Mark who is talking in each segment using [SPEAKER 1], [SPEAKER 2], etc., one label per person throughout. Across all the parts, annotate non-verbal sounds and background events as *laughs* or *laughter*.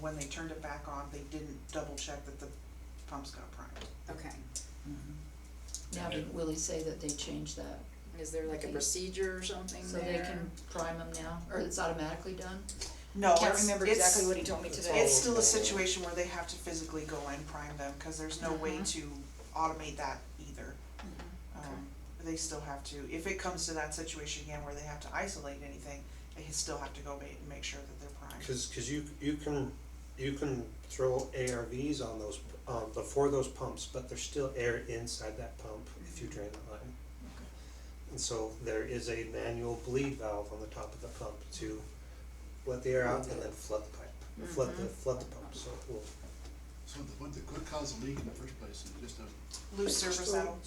[SPEAKER 1] when they turned it back on, they didn't double check that the pumps got primed.
[SPEAKER 2] Okay,
[SPEAKER 3] Now, did Willie say that they changed that,
[SPEAKER 2] is there like a procedure or something
[SPEAKER 3] so
[SPEAKER 2] there?
[SPEAKER 3] they can prime them now, or it's automatically done?
[SPEAKER 1] No,
[SPEAKER 2] Can't
[SPEAKER 1] it's-
[SPEAKER 2] remember
[SPEAKER 1] it's-
[SPEAKER 2] exactly what he told me today.
[SPEAKER 1] It's still a situation where they have to physically go and prime them, cause there's no way
[SPEAKER 2] Mhm.
[SPEAKER 1] to automate that either.
[SPEAKER 2] Okay.
[SPEAKER 1] Um, they still have to, if it comes to that situation again where they have to isolate anything, they still have to go ma- and make sure that they're primed.
[SPEAKER 4] Cause, cause you, you can, you can throw ARVs on those, um, before those pumps, but there's still air inside that pump if you drain the line. And so there is a manual bleed valve on the top of the pump to let the air out and then flood the pipe, flood
[SPEAKER 3] Mm-hmm.
[SPEAKER 4] the, flood the pump, so it will.
[SPEAKER 5] So the, what, the, what caused the leak in the first place is just a,
[SPEAKER 1] Loose service saddle,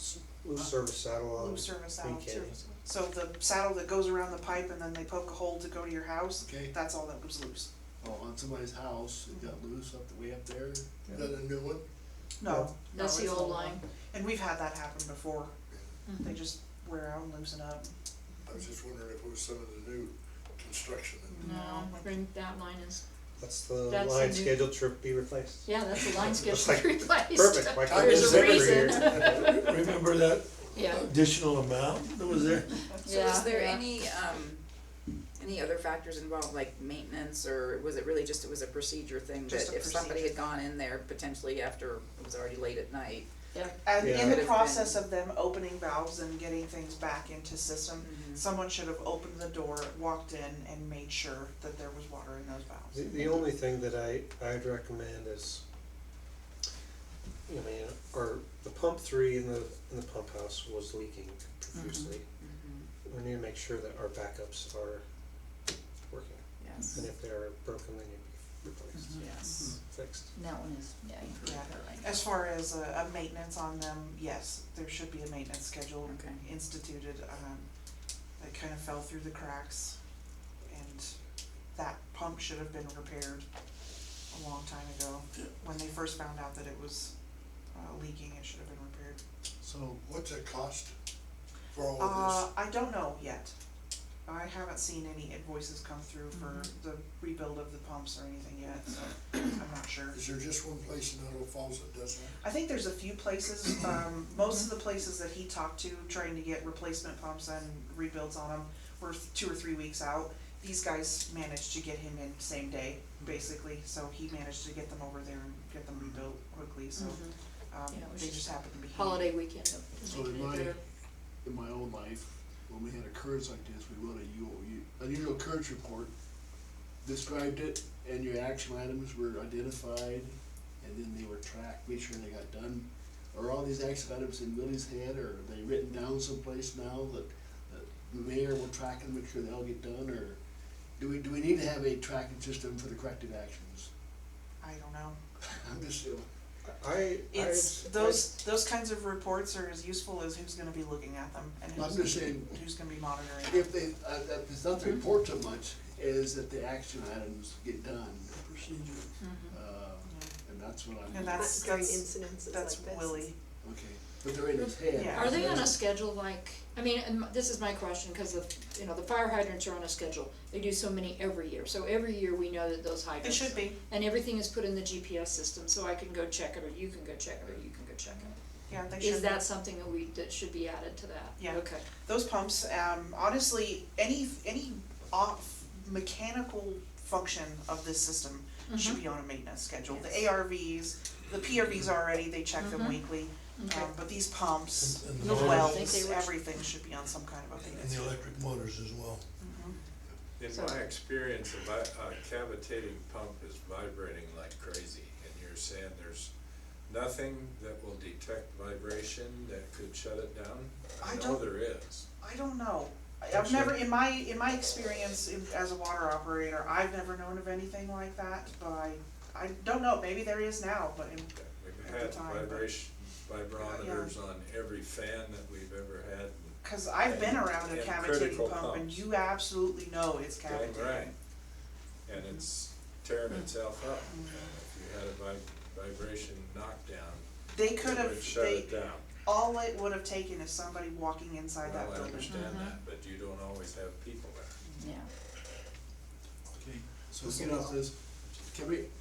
[SPEAKER 4] Loose service saddle on.
[SPEAKER 1] loose service saddle.
[SPEAKER 4] Okay.
[SPEAKER 1] So the saddle that goes around the pipe and then they poke a hole to go to your house,
[SPEAKER 5] okay,
[SPEAKER 1] that's all that was loose.
[SPEAKER 5] oh, on somebody's house, it got loose up the way up there, is that a new one?
[SPEAKER 1] No. no,
[SPEAKER 3] That's the
[SPEAKER 1] it's
[SPEAKER 3] old
[SPEAKER 1] not.
[SPEAKER 3] line, Mm-hmm.
[SPEAKER 1] And we've had that happen before, they
[SPEAKER 2] Mhm.
[SPEAKER 1] just wear out and loosen up.
[SPEAKER 6] I was just wondering if it was some of the new construction and
[SPEAKER 3] no, bring, that line is,
[SPEAKER 4] That's the
[SPEAKER 3] That's the
[SPEAKER 4] line
[SPEAKER 3] new-
[SPEAKER 4] scheduled to be replaced.
[SPEAKER 3] yeah, that's the line
[SPEAKER 4] *laughs*
[SPEAKER 3] *laughs*
[SPEAKER 4] Looks
[SPEAKER 3] scheduled to
[SPEAKER 4] like-
[SPEAKER 3] be replaced.
[SPEAKER 4] Perfect, why can't
[SPEAKER 3] There's a
[SPEAKER 4] we do it every
[SPEAKER 3] reason.
[SPEAKER 6] *laughs*
[SPEAKER 4] year?
[SPEAKER 6] Remember that
[SPEAKER 3] Yeah,
[SPEAKER 6] additional amount that was there?
[SPEAKER 2] So
[SPEAKER 3] Yeah,
[SPEAKER 2] was there
[SPEAKER 3] yeah.
[SPEAKER 2] any, um, any other factors involved, like maintenance, or was it really just, it was a procedure thing?
[SPEAKER 1] Just
[SPEAKER 2] That
[SPEAKER 1] a
[SPEAKER 2] if somebody
[SPEAKER 1] procedure.
[SPEAKER 2] had gone in there potentially after it was already late at night,
[SPEAKER 3] yeah,
[SPEAKER 1] And
[SPEAKER 4] Yeah.
[SPEAKER 1] in
[SPEAKER 2] Could
[SPEAKER 1] the
[SPEAKER 2] have
[SPEAKER 1] process
[SPEAKER 2] been.
[SPEAKER 1] of them opening valves and getting things back into system,
[SPEAKER 2] Mhm.
[SPEAKER 1] someone should have opened the door, walked in and made sure that there was water in those valves.
[SPEAKER 4] The, the only thing that I, I'd recommend is, I mean, or the pump three in the, in the pump house was leaking profusely.
[SPEAKER 2] Mm-hmm.
[SPEAKER 4] We need to make sure that our backups are working,
[SPEAKER 2] yes,
[SPEAKER 4] and if they're broken, they need to be replaced,
[SPEAKER 2] yes.
[SPEAKER 4] fixed.
[SPEAKER 3] and that one is, yeah, you
[SPEAKER 1] Yeah.
[SPEAKER 3] proved that right.
[SPEAKER 1] As far as a, a maintenance on them, yes, there should be a maintenance schedule
[SPEAKER 2] Okay.
[SPEAKER 1] instituted, um, that kind of fell through the cracks. And that pump should have been repaired a long time ago. When they first found out that it was, uh, leaking, it should have been repaired.
[SPEAKER 5] So,
[SPEAKER 6] What's it cost for all
[SPEAKER 1] Uh,
[SPEAKER 6] of
[SPEAKER 1] I don't know yet. I haven't seen any invoices come through for
[SPEAKER 6] Mm-hmm.
[SPEAKER 1] the rebuild of the pumps or anything yet, so I'm not sure.
[SPEAKER 6] this? Is there just one place in Idle Falls that does that?
[SPEAKER 1] I think there's a few places, um, most of the places that he talked to trying to get replacement pumps and rebuilds on them were th- two or three weeks out. These guys managed to get him in same day, basically, so he managed to get them over there and get them rebuilt quickly, so,
[SPEAKER 3] Mhm.
[SPEAKER 1] um,
[SPEAKER 3] Yeah, it was
[SPEAKER 1] they
[SPEAKER 3] just
[SPEAKER 1] just happened to be. here.
[SPEAKER 3] Holiday weekend of.
[SPEAKER 5] so in my, in my own life, when we had occurrence like this, we wrote a UOU, unusual occurrence report, described it, and your action items were identified, and then they were tracked, made sure they got done. Are all these action items in Willie's head, or are they written down someplace now that, that the mayor will track and make sure they all get done, or do we, do we need to have a tracking system for the corrective actions? *laughs*
[SPEAKER 1] I don't know.
[SPEAKER 5] I'm just,
[SPEAKER 4] I, I,
[SPEAKER 1] It's, those, those kinds of reports are as useful as who's gonna be looking at them and
[SPEAKER 5] I'm
[SPEAKER 1] who's
[SPEAKER 5] just
[SPEAKER 1] gonna,
[SPEAKER 5] saying-
[SPEAKER 1] who's gonna be monitoring. them.
[SPEAKER 5] If they, uh, that, it's not the report so much, is that the action items get done. Procedure. Uh, and that's what I'm,
[SPEAKER 1] Mm-hmm. And
[SPEAKER 5] okay,
[SPEAKER 1] that's,
[SPEAKER 7] during
[SPEAKER 1] that's,
[SPEAKER 7] incidences like
[SPEAKER 1] that's
[SPEAKER 7] this.
[SPEAKER 1] Willie.
[SPEAKER 5] but they're in his head.
[SPEAKER 1] Yeah.
[SPEAKER 3] Are they on a schedule like, I mean, and this is my question, cause of, you know, the fire hydrants are on a schedule, they do so many every year, so every year we know that those
[SPEAKER 1] It
[SPEAKER 3] hydrants.
[SPEAKER 1] should be,
[SPEAKER 3] And everything is put in the GPS system, so I can go check it, or you can go check it, or you can go check it.
[SPEAKER 1] yeah, they should be.
[SPEAKER 3] Is that something that we, that should be added to that?
[SPEAKER 1] Yeah.
[SPEAKER 3] Okay,
[SPEAKER 1] those pumps, um, honestly, any, any off mechanical function of this system should
[SPEAKER 3] Mm-hmm.
[SPEAKER 1] be on a maintenance schedule. The ARVs, the PRVs already, they check them
[SPEAKER 3] Mhm.
[SPEAKER 1] weekly,
[SPEAKER 3] okay,
[SPEAKER 1] um, but these pumps,
[SPEAKER 6] And- and
[SPEAKER 1] the
[SPEAKER 6] the-
[SPEAKER 3] I think they
[SPEAKER 1] wells,
[SPEAKER 3] were-
[SPEAKER 1] everything should be on some kind of a
[SPEAKER 6] And
[SPEAKER 1] maintenance
[SPEAKER 6] the
[SPEAKER 1] schedule.
[SPEAKER 6] electric motors as well.
[SPEAKER 1] Mhm.
[SPEAKER 8] In
[SPEAKER 3] So-
[SPEAKER 8] my experience, a vi- a cavitating pump is vibrating like crazy, and you're saying there's nothing that will detect vibration that could shut it down?
[SPEAKER 1] I
[SPEAKER 8] know
[SPEAKER 1] don't-
[SPEAKER 8] there is.
[SPEAKER 1] I don't know. I-
[SPEAKER 8] Don't
[SPEAKER 1] I've never,
[SPEAKER 8] you?
[SPEAKER 1] in my, in my experience in- as a water operator, I've never known of anything like that, but I, I don't know, maybe there is now, but in,
[SPEAKER 8] We've
[SPEAKER 1] At the
[SPEAKER 8] had
[SPEAKER 1] time, but-
[SPEAKER 8] vibration, vibrometers on every fan that we've ever had, and
[SPEAKER 1] cause I've been around a
[SPEAKER 8] And
[SPEAKER 1] cavitating
[SPEAKER 8] critical
[SPEAKER 1] pump and
[SPEAKER 8] pumps.
[SPEAKER 1] you absolutely know it's
[SPEAKER 8] Dang
[SPEAKER 1] cavitating.
[SPEAKER 8] right. and
[SPEAKER 1] Mm-hmm.
[SPEAKER 8] it's tearing itself up. And If you had a vi- vibration knockdown,
[SPEAKER 1] They could
[SPEAKER 8] it
[SPEAKER 1] have,
[SPEAKER 8] would shut
[SPEAKER 1] they,
[SPEAKER 8] it down.
[SPEAKER 1] all it would have taken is somebody walking inside that
[SPEAKER 8] Well, I
[SPEAKER 1] building.
[SPEAKER 8] understand that, but you don't always have people there.
[SPEAKER 3] yeah.
[SPEAKER 5] Okay, so get off this, can we,